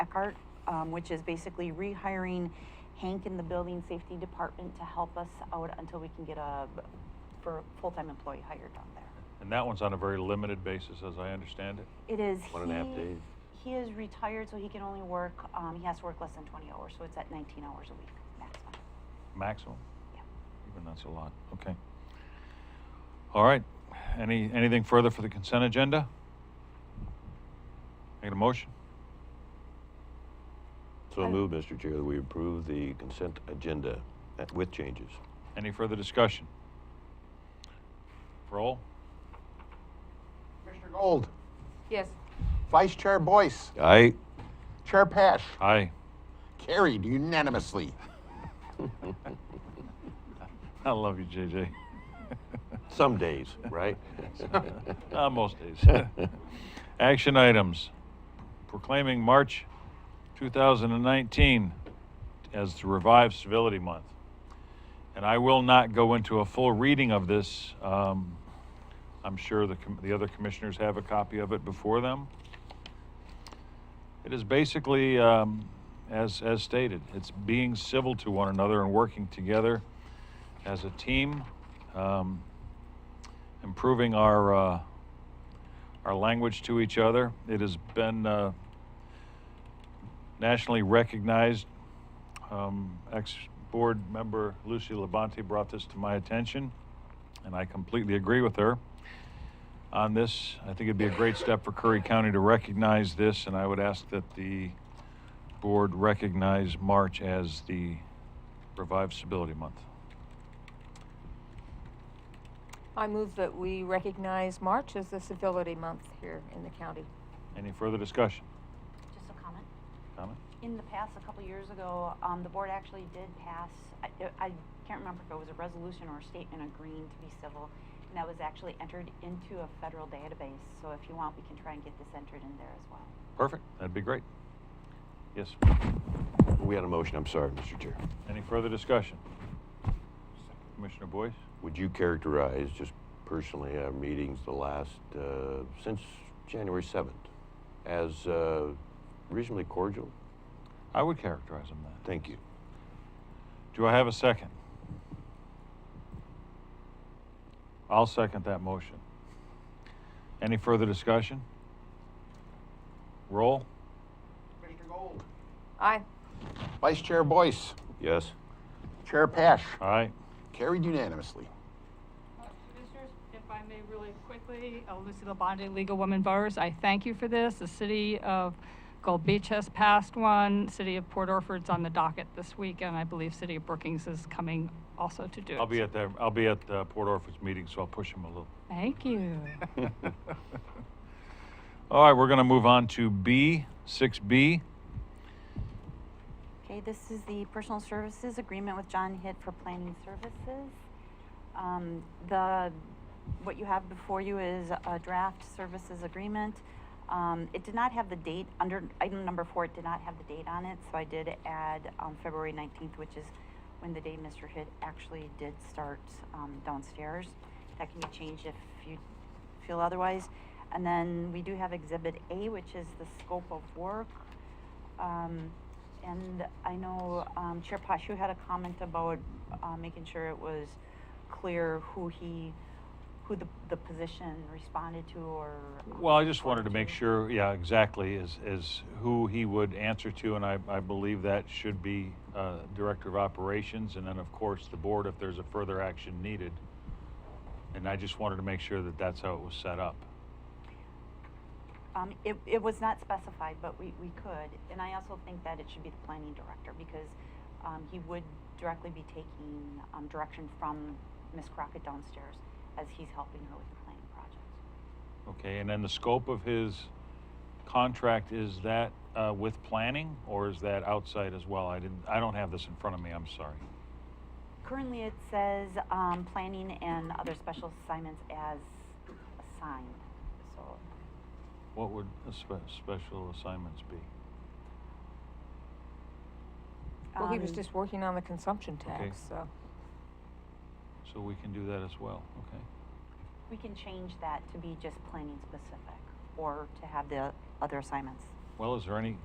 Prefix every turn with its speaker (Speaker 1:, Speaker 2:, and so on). Speaker 1: Eckhart, um, which is basically rehiring Hank in the building safety department to help us out until we can get a, for, full-time employee hired on there.
Speaker 2: And that one's on a very limited basis, as I understand it.
Speaker 1: It is.
Speaker 3: One and a half
Speaker 1: he-
Speaker 3: days.
Speaker 1: He is retired, so he can only work, um, he has to work less than twenty hours, so it's at nineteen hours a week maximum.
Speaker 2: Maximum?
Speaker 1: Yeah.
Speaker 2: Even that's a lot, okay. All right, any, anything further for the consent agenda? Make a motion?
Speaker 3: So
Speaker 1: I-
Speaker 3: moved, Mr. Chair, that we approve the consent agenda at- with changes.
Speaker 2: Any further discussion? Roll?
Speaker 4: Commissioner Gold,
Speaker 5: Yes.
Speaker 4: Vice Chair Boyce,
Speaker 3: Aye.
Speaker 4: Chair Pash,
Speaker 2: Aye.
Speaker 4: carried unanimously.
Speaker 2: I love you, JJ.
Speaker 3: Some days, right?
Speaker 2: Uh, most days. Action items. Proclaiming March 2019 as the Revived Civility Month. And I will not go into a full reading of this. Um, I'm sure the, com- the other commissioners have a copy of it before them. It is basically, um, as, as stated, it's being civil to one another and working together as a team, um, improving our, uh, our language to each other. It has been uh, nationally recognized. Um, Ex board member Lucy Labonte brought this to my attention, and I completely agree with her on this. I think it'd be a great step for Curry County to recognize this, and I would ask that the board recognize March as the Revive Civility Month.
Speaker 5: I move that we recognize March as the civility month here in the county.
Speaker 2: Any further discussion?
Speaker 1: Just a comment.
Speaker 2: Comment?
Speaker 1: In the past, a couple years ago, um, the board actually did pass, I, I can't remember if it was a resolution or a statement agreeing to be civil. And that was actually entered into a federal database, so if you want, we can try and get this entered in there as well.
Speaker 2: Perfect. That'd be great. Yes.
Speaker 3: We had a motion, I'm sorry, Mr. Chair.
Speaker 2: Any further discussion? Commissioner Boyce?
Speaker 3: Would you characterize, just personally, our meetings the last, uh, since January 7th, as uh, reasonably cordial?
Speaker 2: I would characterize them that.
Speaker 3: Thank you.
Speaker 2: Do I have a second? I'll second that motion. Any further discussion? Roll?
Speaker 4: Commissioner Gold,
Speaker 5: Aye.
Speaker 4: Vice Chair Boyce,
Speaker 3: Yes?
Speaker 4: Chair Pash,
Speaker 2: Aye.
Speaker 4: carried unanimously.
Speaker 6: Uh, Commissioners, if I may really quickly, uh, Lucy Labonte, Legal Women Voters, I thank you for this. The city of Gold Beach has passed one, city of Port Orford's on the docket this week, and I believe city of Brookings is coming also to do it.
Speaker 2: I'll be at the, I'll be at uh, Port Orford's meeting, so I'll push him a little.
Speaker 6: Thank you.
Speaker 2: All right, we're going to move on to B, 6B.
Speaker 1: Okay, this is the personal services agreement with John Hitt for planning services. Um, the, what you have before you is a draft services agreement. Um, it did not have the date, under, item number four, it did not have the date on it, so I did add, um, February nineteenth, which is when the day Mr. Hitt actually did start, um, downstairs. That can be changed if you feel otherwise. And then we do have Exhibit A, which is the scope of work. Um, and I know, um, Chair Pash, you had a comment about, uh, making sure it was clear who he, who the, the position responded to or. um,
Speaker 2: Well, I just wanted to
Speaker 1: reported
Speaker 2: make sure, yeah, exactly, is, is who he would answer to, and I, I believe that should be uh, Director of Operations, and then, of course, the board if there's a further action needed. And I just wanted to make sure that that's how it was set up.
Speaker 1: Um, it, it was not specified, but we, we could, and I also think that it should be the planning director, because, um, he would directly be taking, um, direction from Ms. Crockett downstairs as he's helping her with the planning project.
Speaker 2: Okay, and then the scope of his contract, is that uh, with planning, or is that outside as well? I didn't, I don't have this in front of me, I'm sorry.
Speaker 1: Currently, it says, um, planning and other special assignments as assigned, so,
Speaker 2: What would a spe- special assignments be?
Speaker 5: Well, he was
Speaker 1: Um,
Speaker 5: just working on the consumption
Speaker 2: Okay.
Speaker 5: tax, so.
Speaker 2: So we can do that as well, okay?
Speaker 1: we can change that to be just planning specific, or to have the other assignments.
Speaker 2: Well, is there any,